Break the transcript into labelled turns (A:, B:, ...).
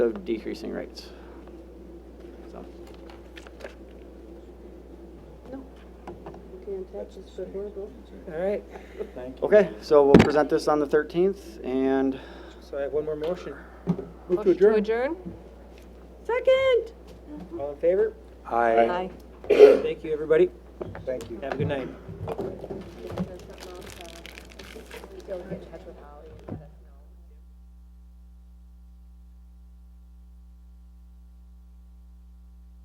A: of decreasing rates. So,
B: No. Can't touch, it's so horrible.
C: All right,
D: Thank you.
A: Okay, so we'll present this on the 13th, and
C: so I have one more motion.
D: Move
B: Motion to adjourn? Second.
C: All in favor?
D: Aye.
C: Thank you, everybody.
D: Thank you.
C: Have a good night.
B: Go get in touch with Holly.